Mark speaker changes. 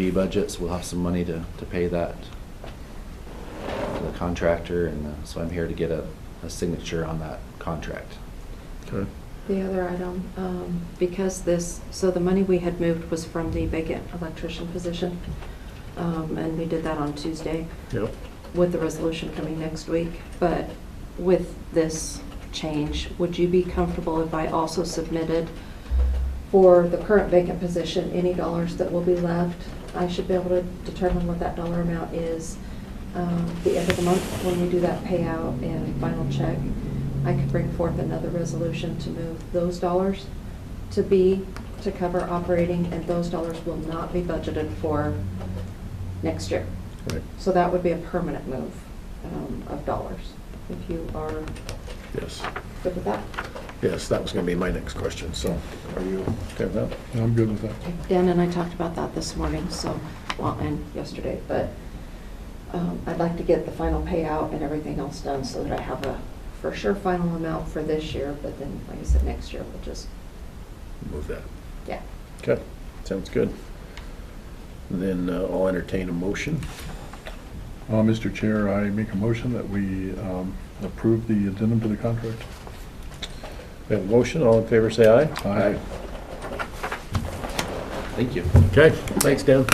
Speaker 1: B budget, so we'll have some money to, to pay that to the contractor, and uh, so I'm here to get a, a signature on that contract.
Speaker 2: Okay.
Speaker 3: The other item, um, because this, so the money we had moved was from the vacant electrician position, um, and we did that on Tuesday
Speaker 2: Yep.
Speaker 3: with the resolution coming next week. But with this change, would you be comfortable if I also submitted for the current vacant position, any dollars that will be left? I should be able to determine what that dollar amount is um, the end of the month when we do that payout and final check. I could bring forth another resolution to move those dollars to be, to cover operating, and those dollars will not be budgeted for next year.
Speaker 2: Right.
Speaker 3: So that would be a permanent move um, of dollars, if you are
Speaker 2: Yes.
Speaker 3: good with that.
Speaker 2: Yes, that was going to be my next question. So are you okay with that?
Speaker 4: I'm good with that.
Speaker 3: Dan and I talked about that this morning, so, well, and yesterday, but um, I'd like to get the final payout and everything else done so that I have a for sure final amount for this year, but then, like I said, next year we'll just,
Speaker 2: Move that.
Speaker 3: yeah.
Speaker 2: Okay. Sounds good. Then uh, I'll entertain a motion.
Speaker 4: Uh, Mr. Chair, I make a motion that we um, approve the addendum to the contract.
Speaker 2: We have a motion. All in favor, say aye.
Speaker 4: Aye.
Speaker 1: Thank you.
Speaker 2: Okay. Thanks, Dan.